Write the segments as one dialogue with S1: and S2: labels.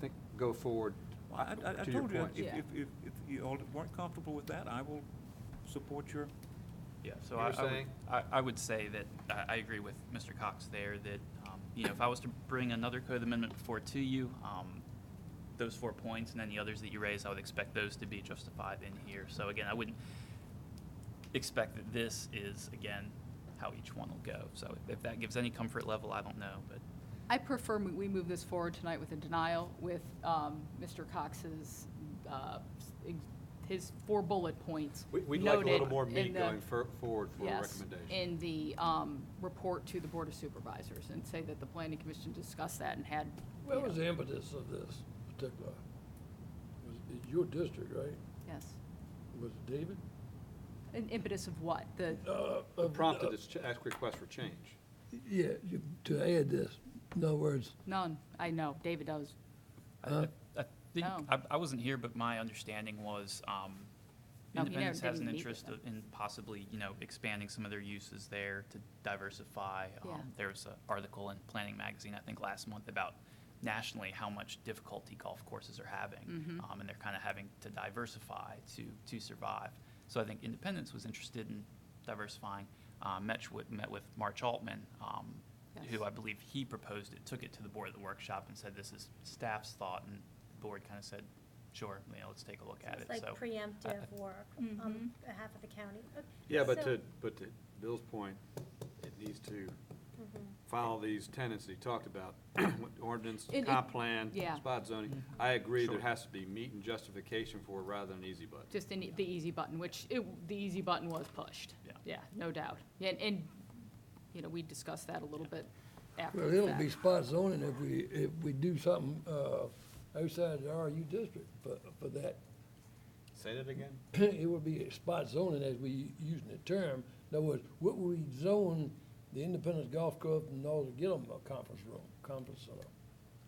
S1: think, go forward.
S2: I, I- I
S1: To your
S2: told you,
S1: point.
S2: if,
S3: Yeah.
S2: if, if if you all weren't comfortable with that, I will support your,
S4: Yeah, so
S1: You were
S4: I, I would,
S1: saying?
S4: I, I would say that, I, I agree with Mr. Cox there, that, um, you know, if I was to bring another code amendment before to you, um, those four points and any others that you raised, I would expect those to be justified in here. So again, I wouldn't expect that this is, again, how each one will go. So if that gives any comfort level, I don't know, but
S3: I prefer we- we move this forward tonight with a denial with um, Mr. Cox's, uh, ex- his four bullet points
S1: We- We'd like a little
S3: noted
S1: more
S3: in
S1: meat
S3: the-
S1: going fur- forward for a
S3: Yes,
S1: recommendation.
S3: in the um, report to the Board of Supervisors and say that the planning commission discussed that and had.
S5: What
S3: yeah,
S5: was the impetus of this particular? Was it your district, right?
S3: Yes.
S5: Was it David?
S3: An impetus of what? The,
S5: Uh,
S1: What
S5: of-
S1: Prompted
S5: uh,
S1: this ch- ask request for change.
S5: Yeah, you- to add this, in other words,
S3: none, I know, David does.
S4: I-
S5: Huh?
S4: I I think,
S3: No.
S4: I, I wasn't here, but my understanding was, um,
S3: No, he never
S4: Independence has an
S3: didn't meet
S4: interest
S3: with
S4: in possibly, you know, expanding some of their uses there to diversify. Um,
S3: Yeah.
S4: There was an article in Planning Magazine, I think, last month about nationally how much difficulty golf courses are
S3: Mm-hmm.
S4: having. Um, and they're kind of having to diversify to, to survive. So I think Independence was interested in diversifying. Uh, met with, met with March Altman, um,
S3: Yes.
S4: who I believe he proposed it, took it to the board at the workshop and said, this is staff's thought, and the board kind of said, sure, you know, let's take a look at it,
S6: It's like
S4: so.
S6: preemptive work on behalf of the county. Okay,
S1: Yeah, but
S6: so-
S1: to, but to Bill's point, it needs to
S3: Mm-hmm.
S1: follow these tenets that he talked about, with ordinance,
S3: It- it-
S1: comp plan,
S3: yeah.
S1: spot zoning. I agree, there
S4: Sure.
S1: has to be meat and justification for it rather than an easy button.
S3: Just in the easy button, which, it- the easy button was pushed.
S4: Yeah.
S3: Yeah, no doubt. Yeah, And, and, you know, we discussed that a little bit after
S5: well,
S3: the
S5: it'll
S3: fact.
S5: be spot zoning if we, if we do something, uh, outside the RU district for, for that.
S1: Say that again?
S5: It would be spot zoning as we using the term. In other words, what would we zone the Independence Golf Club in order to get them a conference room, conference center?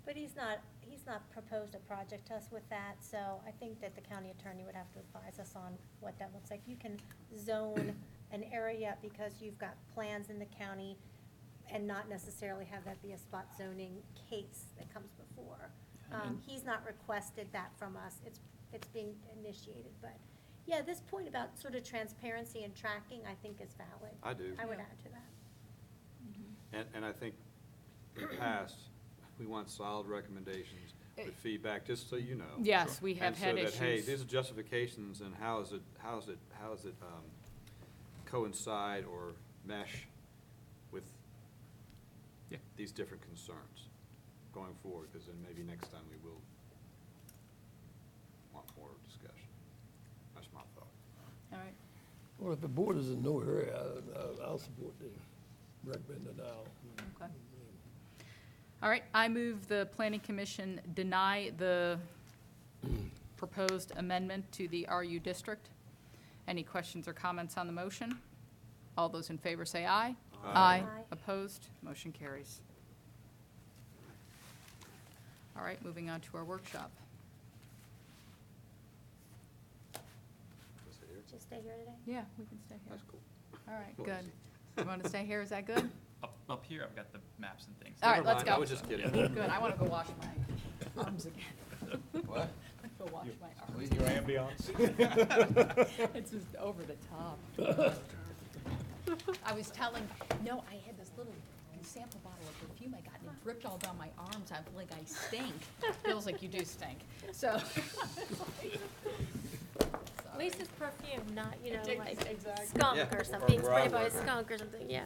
S6: But he's not, he's not proposed a project to us with that, so I think that the county attorney would have to advise us on what that looks like. You can zone an area because you've got plans in the county and not necessarily have that be a spot zoning case that comes before. Um, he's not requested that from us, it's, it's being initiated, but, yeah, this point about sort of transparency and tracking, I think is valid.
S1: I do.
S6: I would
S3: Yeah.
S6: add to that.
S1: And, and I think in the past, we want solid recommendations with feedback, just so you know.
S3: Yes, we have
S1: And so
S3: had
S1: that, Hey,
S3: issues.
S1: these are justifications and how is it, how is it, how is it um, coincide or mesh with
S4: Yeah.
S1: these different concerns going forward? Because then maybe next time we will want more discussion. That's my thought.
S3: All right.
S5: Well, if the board is in no hurry, I, I- I'll support the recommend denial.
S3: Okay. All right, I move the planning commission deny the proposed amendment to the RU district. Any questions or comments on the motion? All those in favor say aye.
S1: Aye.
S6: Aye.
S3: Opposed? Motion carries. All right, moving on to our workshop.
S1: Is it here?
S6: Just stay here today.
S3: Yeah, we can stay here.
S1: That's cool.
S3: All right,
S1: Well,
S3: good.
S1: easy.
S3: You want to stay here? Is that good?
S4: Up, up here, I've got the maps and things.
S3: All right,
S1: Never
S3: let's
S1: mind, I
S3: go.
S1: was just kidding.
S3: Good, I want to go wash my arms again.
S7: What?
S3: Go wash my arms.
S7: Your ambiance?
S3: It's just over the top. I was telling, no, I had this little sample bottle of perfume I got and it dripped all down my arms. I'm like, I stink. Feels like you do stink, so.
S6: At least it's perfume, not, you know,
S3: Ex-
S6: like
S3: exactly.
S6: skunk
S1: Yeah,
S6: or
S1: or
S6: something, sprayed by a
S1: rottweiler.
S6: skunk or something, yeah.